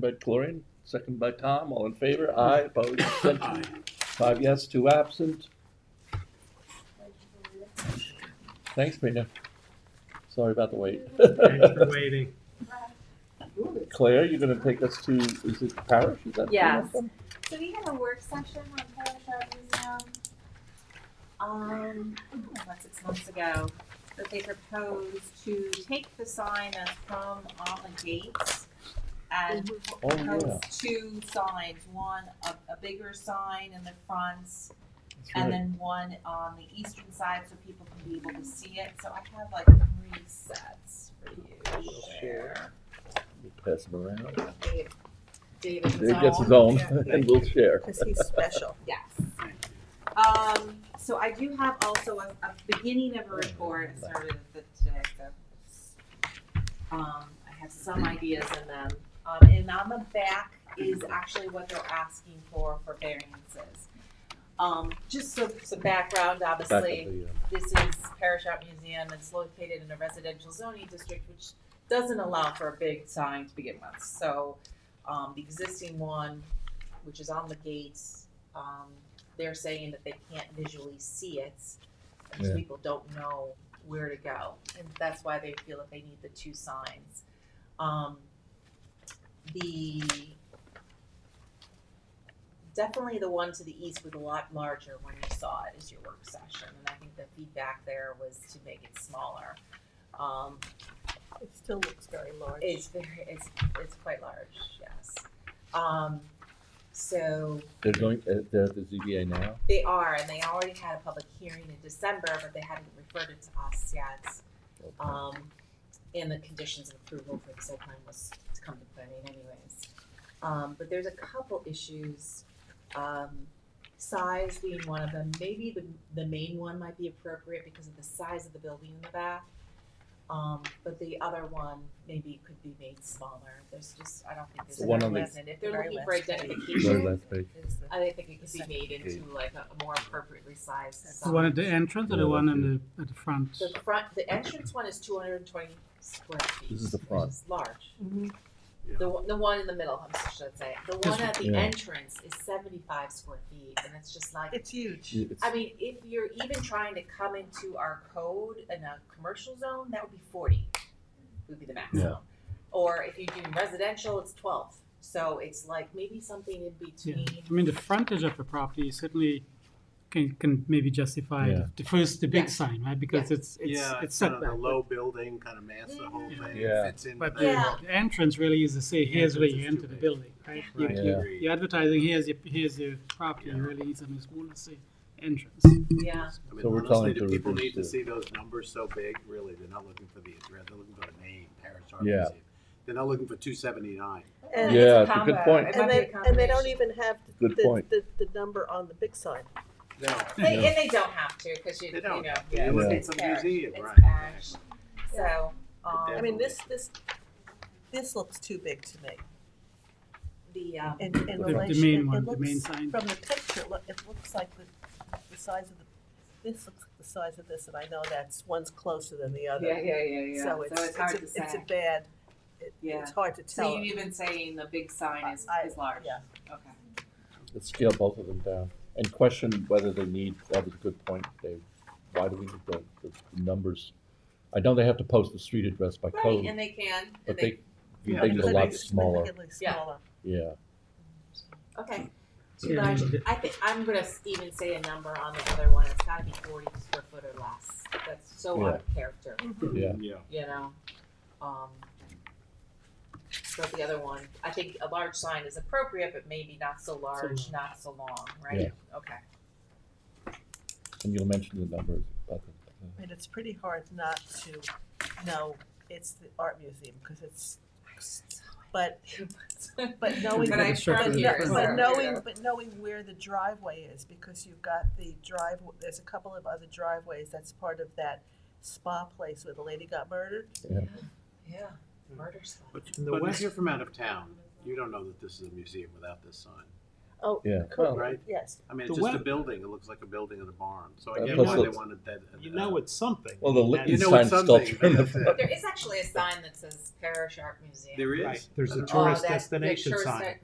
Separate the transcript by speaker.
Speaker 1: by Chlorine, second by Tom, all in favor, aye, opposed, abstention. Five yes, two absent. Thanks, Rena. Sorry about the wait.
Speaker 2: Thanks for waiting.
Speaker 1: Claire, you're gonna take us to, is it Parish, is that? the
Speaker 3: Yes.
Speaker 1: one from?
Speaker 4: So we had a work session on Polish Art Museum. Um, I don't know, about six months ago, that they proposed to take the sign that's from all the gates and
Speaker 1: Oh, yeah,
Speaker 4: propose two signs, one a, a bigger sign in the front
Speaker 1: that's
Speaker 4: and
Speaker 1: right.
Speaker 4: then one on the eastern side so people can be able to see it. So I have like three sets for you to share.
Speaker 1: We'll Pass them around.
Speaker 3: Dave- David
Speaker 1: Dave gets his own and we'll share.
Speaker 3: Because he's special.
Speaker 4: Yes. Um, so I do have also a, a beginning of a report, I started with it today, so. Um, I have some ideas in them, um, and on the back is actually what they're asking for, for variances. Um, just so, some background,
Speaker 1: Back
Speaker 4: obviously
Speaker 1: at the, uh,
Speaker 4: this is Parish Art Museum. It's located in a residential zoning district, which doesn't allow for a big sign to begin with. So, um, the existing one, which is on the gates, um, they're saying that they can't visually see it. Because
Speaker 1: Yeah.
Speaker 4: people don't know where to go, and that's why they feel that they need the two signs. Um, the, definitely the one to the east was a lot larger when you saw it as your work session, and I think the feedback there was to make it smaller. Um,
Speaker 3: It still looks very large.
Speaker 4: it's very, it's, it's quite large, yes. Um, so
Speaker 1: They're going, uh, they're at the ZBA now?
Speaker 4: they are, and they already had a public hearing in December, but they hadn't referred it to us yet.
Speaker 1: Okay.
Speaker 4: Um, and the conditions of approval for the site plan was to come to planning anyways. Um, but there's a couple issues, um, size being one of them, maybe the, the main one might be appropriate because of the size of the building in the back. Um, but the other one maybe could be made smaller, there's just, I don't think there's
Speaker 1: The one on
Speaker 4: enough
Speaker 1: the-
Speaker 4: resin, if they're
Speaker 3: Very
Speaker 4: looking for
Speaker 3: last page.
Speaker 1: Very
Speaker 4: identification,
Speaker 1: last page.
Speaker 3: Is the-
Speaker 4: I think it could be made into like a a more appropriately sized
Speaker 3: The
Speaker 4: sign.
Speaker 2: The one at the entrance or the one in the, at the front?
Speaker 4: The front, the entrance one is two hundred and twenty square feet.
Speaker 1: This is the
Speaker 4: which
Speaker 1: front.
Speaker 4: is Large.
Speaker 3: Mhm.
Speaker 4: The, one- the one in the middle, I should say. The
Speaker 2: This
Speaker 4: one at the
Speaker 1: Yeah.
Speaker 4: entrance is seventy-five square feet, and it's just like,
Speaker 3: It's huge.
Speaker 1: It's-
Speaker 4: I mean, if you're even trying to come into our code in a commercial zone, that would be forty, would be the maximum. Or if you do residential, it's twelve, so it's like maybe something in
Speaker 2: Yeah,
Speaker 4: between.
Speaker 2: I mean, the frontage of the property certainly can, can maybe justify
Speaker 1: Yeah.
Speaker 2: the- the first, the
Speaker 4: Yeah.
Speaker 2: big sign, right? Because it's, it's,
Speaker 5: Yeah,
Speaker 2: it's
Speaker 5: it's kind of a
Speaker 2: setback.
Speaker 5: low building, kind of mass the whole
Speaker 2: Mhm.
Speaker 5: thing,
Speaker 1: Yeah.
Speaker 5: fits in.
Speaker 2: But
Speaker 5: back.
Speaker 2: the
Speaker 4: Yeah.
Speaker 2: the entrance really is to say,
Speaker 5: The
Speaker 2: here's where
Speaker 5: entrance
Speaker 2: you
Speaker 5: is
Speaker 2: enter
Speaker 5: too
Speaker 2: the
Speaker 5: big.
Speaker 2: building, right? You-
Speaker 5: Right.
Speaker 1: Yeah.
Speaker 2: you- You're advertising, here's your, here's your property,
Speaker 5: Yeah.
Speaker 2: really is on a smaller, say, entrance.
Speaker 4: Yeah,
Speaker 5: I mean,
Speaker 1: So we're telling
Speaker 5: honestly,
Speaker 1: to
Speaker 5: do people
Speaker 1: reduce
Speaker 5: need to
Speaker 1: the-
Speaker 5: see those numbers so big? Really, they're not looking for the address, they're looking for the name, Paris Art
Speaker 1: Yeah.
Speaker 5: Museum. They're not looking for two seventy-nine.
Speaker 3: And-
Speaker 1: Yeah, it's a good
Speaker 4: combo.
Speaker 1: point.
Speaker 4: It might
Speaker 3: And
Speaker 4: be
Speaker 3: they,
Speaker 4: a
Speaker 3: and they don't
Speaker 4: combination.
Speaker 3: even have the,
Speaker 1: Good point.
Speaker 3: the, the number on the big sign.
Speaker 5: No,
Speaker 4: They,
Speaker 1: Yeah.
Speaker 4: and they don't have to, cause you,
Speaker 5: They
Speaker 4: you
Speaker 5: don't.
Speaker 4: know,
Speaker 5: you're
Speaker 4: yeah,
Speaker 5: looking
Speaker 4: it's
Speaker 5: for the
Speaker 4: parish.
Speaker 5: museum,
Speaker 4: It's
Speaker 5: right?
Speaker 4: parish. So,
Speaker 3: I
Speaker 4: um,
Speaker 3: mean, this, this, this looks too big to me.
Speaker 4: the, um,
Speaker 3: And, and
Speaker 2: The-
Speaker 3: relation.
Speaker 2: The main
Speaker 3: it
Speaker 2: one, the main
Speaker 3: looks-
Speaker 2: sign.
Speaker 3: From the picture, look, it looks like the, the size of the, this looks like the size of this, and I know that's, one's closer than the other.
Speaker 4: yeah, yeah, yeah, yeah.
Speaker 3: So it's, it's
Speaker 4: hard
Speaker 3: a,
Speaker 4: to
Speaker 3: it's a
Speaker 4: say.
Speaker 3: bad, it,
Speaker 4: Yeah.
Speaker 3: it's hard to
Speaker 4: So
Speaker 3: tell.
Speaker 4: you even saying the big sign is,
Speaker 3: I-
Speaker 4: is large?
Speaker 3: yeah.
Speaker 4: Okay.
Speaker 1: Let's scale both of them down and question whether they need, that was a good point, Dave. Why do we need the, the numbers? I know they have to post the street address by
Speaker 4: Right,
Speaker 1: code,
Speaker 4: and they can,
Speaker 1: but
Speaker 4: and
Speaker 1: they,
Speaker 4: they,
Speaker 5: Yeah,
Speaker 1: they need a
Speaker 5: but
Speaker 1: lot
Speaker 5: it's
Speaker 1: smaller,
Speaker 3: Significantly
Speaker 4: Yeah.
Speaker 3: smaller.
Speaker 1: yeah.
Speaker 4: okay, too
Speaker 2: Yeah, I
Speaker 4: large.
Speaker 2: mean, the-
Speaker 4: I think, I'm gonna s- even say a number on the other one, it's gotta be forty square foot or less, that's so out of character,
Speaker 1: Yeah.
Speaker 5: Yeah,
Speaker 4: you know? Um, but the other one, I think a large sign is appropriate, but maybe not so large,
Speaker 2: long.
Speaker 4: not so long, right? Okay.
Speaker 1: And you'll mention the numbers, but, uh,
Speaker 3: I mean, it's pretty hard not to know it's the art museum, because it's, but, but knowing.
Speaker 4: But I
Speaker 2: It's structure
Speaker 4: from
Speaker 2: in
Speaker 4: here,
Speaker 2: front.
Speaker 3: But
Speaker 4: so-
Speaker 3: knowing, but knowing where the driveway is, because you've got the drive, there's a couple of other driveways, that's part of that spa place where the lady got murdered.
Speaker 4: Yeah, murder sign.
Speaker 5: but the
Speaker 2: But
Speaker 5: when
Speaker 2: it's-
Speaker 5: you're from out of town, you don't know that this is a museum without this sign.
Speaker 3: Oh,
Speaker 1: Yeah.
Speaker 3: correct,
Speaker 5: Right.
Speaker 3: yes.
Speaker 5: I mean,
Speaker 6: The
Speaker 5: it's just a
Speaker 6: web-
Speaker 5: building, it looks like a building at a barn, so
Speaker 1: Uh,
Speaker 5: I get
Speaker 1: plus
Speaker 5: why they
Speaker 1: it's-
Speaker 5: wanted that. uh,
Speaker 6: You know it's something.
Speaker 1: Well, the
Speaker 6: That-
Speaker 5: You know
Speaker 1: Lichtenstein
Speaker 5: it's something,
Speaker 1: sculpture in the
Speaker 5: that's it.
Speaker 1: front.
Speaker 4: There is actually a sign that says Parish Art Museum.
Speaker 5: There
Speaker 6: Right,
Speaker 5: is.
Speaker 6: there's
Speaker 5: I
Speaker 6: a
Speaker 5: don't know.
Speaker 6: tourist
Speaker 4: Oh, that- the
Speaker 6: destination
Speaker 4: tourist
Speaker 6: sign.
Speaker 4: de-